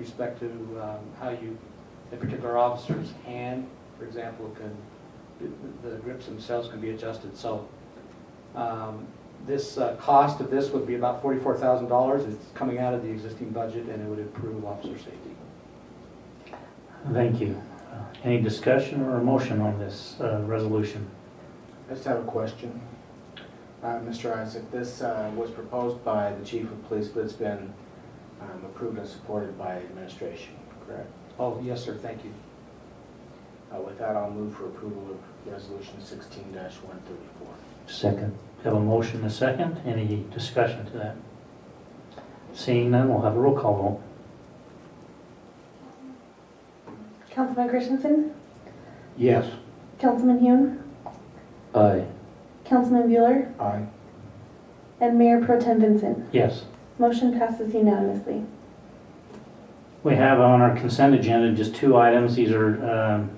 respect to um, how you, a particular officer's hand, for example, can, the- the grips themselves can be adjusted, so. um, This, uh, cost of this would be about forty-four thousand dollars, it's coming out of the existing budget, and it would improve officer safety. Thank you. Uh, Any discussion or motion on this uh, resolution? I just have a question. Uh, Mr. Isaac, this uh, was proposed by the chief of police, but it's been um, approved and supported by administration, correct? Oh, yes, sir, thank you. Uh, With that, I'll move for approval of resolution sixteen one thirty-four. Second. Have a motion and a second. Any discussion to that? Seeing none, we'll have a roll call vote. Councilman Christensen, Yes. Councilman Hune, Aye. Councilman Bueller, Aye. and Mayor Pro Tem Vincent. Yes. Motion passes unanimously. We have on our consent agenda just two items. These are um,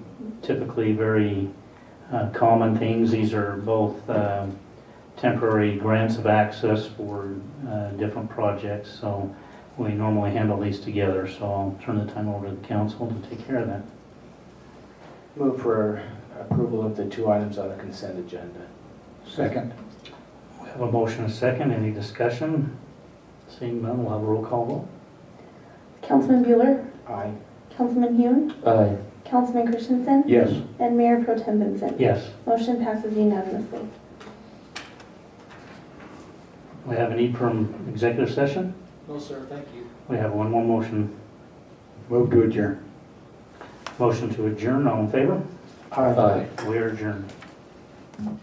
typically very uh, common things. These are both um, temporary grants of access for uh, different projects, so we normally handle these together. So I'll turn the time over to the council to take care of that. Move for approval of the two items on the consent agenda. Second. We have a motion and a second. Any discussion? Seeing none, we'll have a roll call Councilman Bueller, Aye. Councilman Hune, vote. Aye. Councilman Christensen, Yes. and Mayor Pro Tem Vincent. Yes. Motion passes unanimously. We have a need for an executive session. No, sir, thank you. We have one more motion. Move to adjourn. Motion to adjourn. All in favor? Aye. We are adjourned.